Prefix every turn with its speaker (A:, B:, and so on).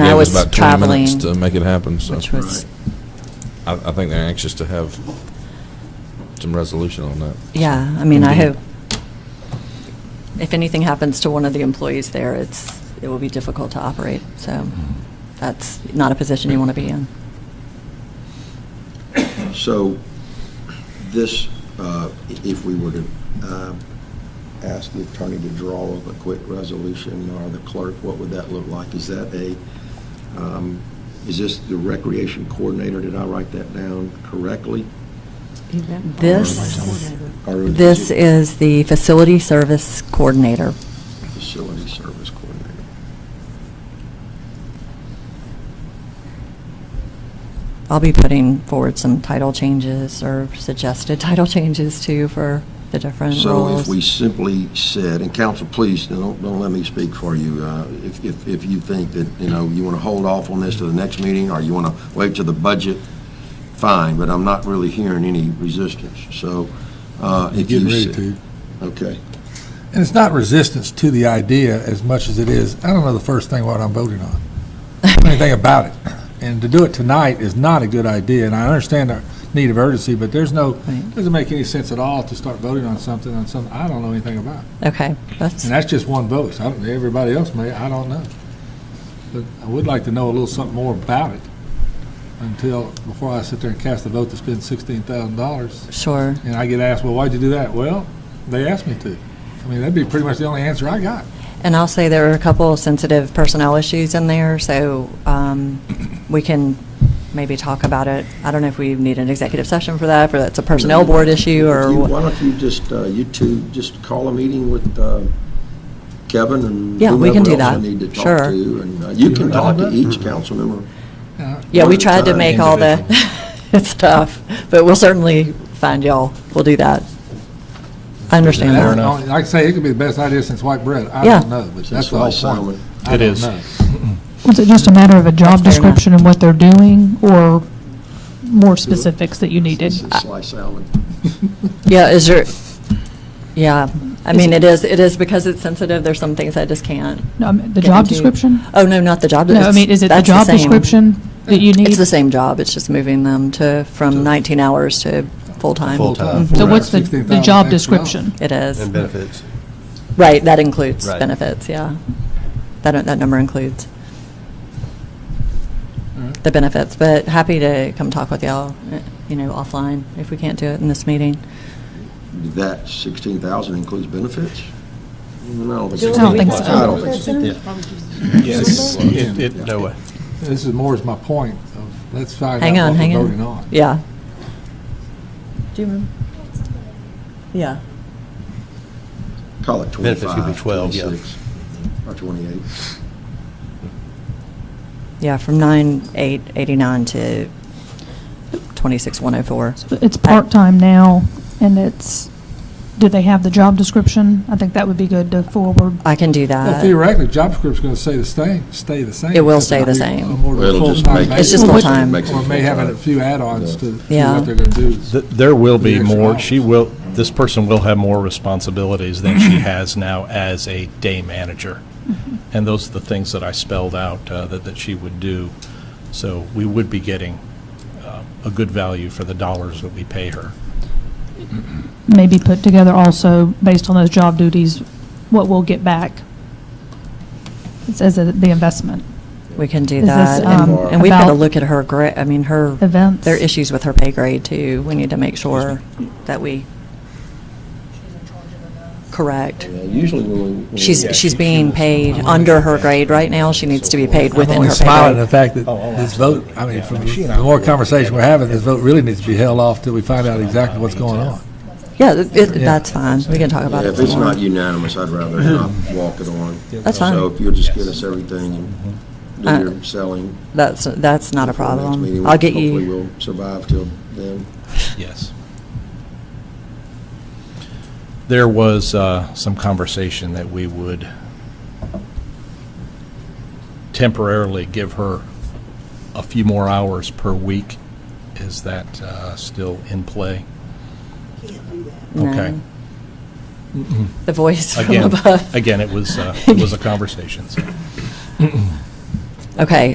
A: I
B: I
A: gave us
B: was
A: about 20 minutes to
B: traveling,
A: make it happen, so
B: which was,
A: I, I think they're anxious to have some resolution on that.
B: yeah, I mean, I
A: Indeed.
B: hope, if anything happens to one of the employees there, it's, it will be difficult to operate, so that's not a position you want to be in.
C: So this, uh, i- if we were to um, ask the attorney to draw up a quick resolution or the clerk, what would that look like? Is that a, um, is this the recreation coordinator? Did I write that down correctly?
B: This,
C: Or is
B: this
C: it
B: is the facility service coordinator.
C: Facility service coordinator.
B: I'll be putting forward some title changes or suggested title changes too for the different
C: So if we
B: roles.
C: simply said, and counsel, please, don't, don't let me speak for you. Uh, If, if, if you think that, you know, you want to hold off on this to the next meeting, or you want to wait till the budget, fine, but I'm not really hearing any resistance. So uh,
D: You're
C: if you
D: Getting ready
C: said.
D: to.
C: Okay.
D: And it's not resistance to the idea as much as it is, I don't know the first thing what I'm voting on. I don't know Anything about it. And to do it tonight is not a good idea, and I understand the need of urgency, but there's no,
B: Right.
D: doesn't make any sense at all to start voting on something, on something I don't know anything about.
B: Okay, that's,
D: And that's just one vote. So I don't, everybody else may, I don't know. But I would like to know a little something more about it until, before I sit there and cast a vote to spend sixteen thousand dollars.
B: sure.
D: And I get asked, well, why'd you do that? Well, they asked me to. I mean, that'd be pretty much the only answer I got.
B: And I'll say there are a couple of sensitive personnel issues in there, so um, we can maybe talk about it. I don't know if we need an executive session for that, or that's a personnel board issue,
C: If you- Why
B: or,
C: don't you just, uh, you two, just call a meeting with uh, Kevin and
B: Yeah, we can do
C: whomever else
B: that.
C: you need to talk
B: Sure.
C: to. And uh, you can
D: wanna
C: talk
D: do
C: to
D: that? Mm-hmm.
C: each council member.
B: yeah,
C: one
B: we
C: at a
B: tried to
C: time,
B: make all the stuff, but we'll certainly find y'all. We'll do that. I understand
D: That's the
B: that.
D: only- Like I say, it could be the best idea since white bread. I
B: Yeah.
D: don't know, but
C: Since
D: that's the whole
C: last summer.
D: point. It is.
E: Was it just a matter of a job
B: That's fair enough.
E: description and what they're doing, or more specifics that you needed?
C: It's a Slice salad.
B: Yeah, is there, yeah, I mean, it is, it is because it's sensitive, there's some things I just can't.
E: No, I mean, The
B: get
E: job
B: into.
E: description?
B: Oh, no, not the job.
E: No, I
B: it's-
E: mean, is it the
B: that's
E: job
B: same.
E: description that you need?
B: It's the same job, it's just moving them to, from 19 hours to full-time. Mm-hmm.
F: Full-time.
E: So what's the, the job description?
D: Mm-hmm.
B: It is.
F: And benefits.
B: Right, that includes
F: Right.
B: benefits, yeah. That, that number includes
D: Mm-hmm.
B: the benefits, but happy to come talk with y'all, eh, you know, offline, if we can't do it in this meeting.
C: That 16,000 includes benefits? No, I
E: I don't think so.
C: I don't think so.
F: Yes. It, it- no way.
D: This is more is my point of, let's find
B: Hang
D: out
B: on,
D: what
B: hang
D: we're
B: on.
D: voting on.
B: Yeah. Do you remember? Yeah.
C: Call it
F: Benefits could be
C: 25,
F: 12, yeah.
C: 26, or 28.
B: Yeah, from 9/8/89 to 26/104.
E: It's part-time now, and it's, do they have the job description? I think that would be good to forward.
B: I can do
D: Well,
B: that.
D: theoretically, job description's gonna stay the same, stay the same.
B: It will
D: except
B: stay the
D: it'll be
B: same.
D: a more of a
C: It'll just
D: full-time
C: make it-
B: It's just
D: basis.
B: full-time.
C: Makes it
D: Or may have a
C: full-time.
D: few add-ons to to
B: Yeah.
D: what they're gonna do.
G: Th- There will be
D: The extra
G: more,
D: hours.
G: she will, this person will have more responsibilities than
F: Mm-hmm.
G: she has now as a day manager. And those are the things that I spelled out uh, that, that she would do. So we would be getting uh, a good value for the dollars that we pay her.
E: Maybe put together also, based on those job duties, what we'll get back. It's as a- the investment,
B: We can do
E: Is this,
B: that. And-
C: um,
B: And we've got to
E: about-
B: look at her, gra- I mean, her,
E: events.
B: there are issues with her pay grade, too. We need to make sure that we, correct.
C: Yeah, Usually when we.
B: She's,
C: when we-
B: she's being paid under her grade right now. She needs to be paid within her pay
D: smiling
B: grade.
D: at the fact that this vote, oh, I mean, from the more conversation we're having, this vote really needs to be held off till we find out exactly what's going on.
B: Yeah, it- it- that's fine. We can talk
C: Yeah,
B: about it
C: If it's
B: some more.
C: not unanimous, I'd rather not walk it on.
B: That's fine.
C: So if you'll just get us everything
B: Uh,
C: and do your selling.
B: That's, that's not a
C: for the next meeting,
B: problem.
C: we
B: I'll get
C: Hopefully
B: you,
C: we'll survive till then.
G: Yes. There was uh, some conversation that we would temporarily give her a few more hours per week. Is that uh, still in play? Okay. Mm-hmm.
B: no, the voice from
G: Again, uh,
B: above.
G: again, it was, uh, it was a conversation. so.
B: Okay,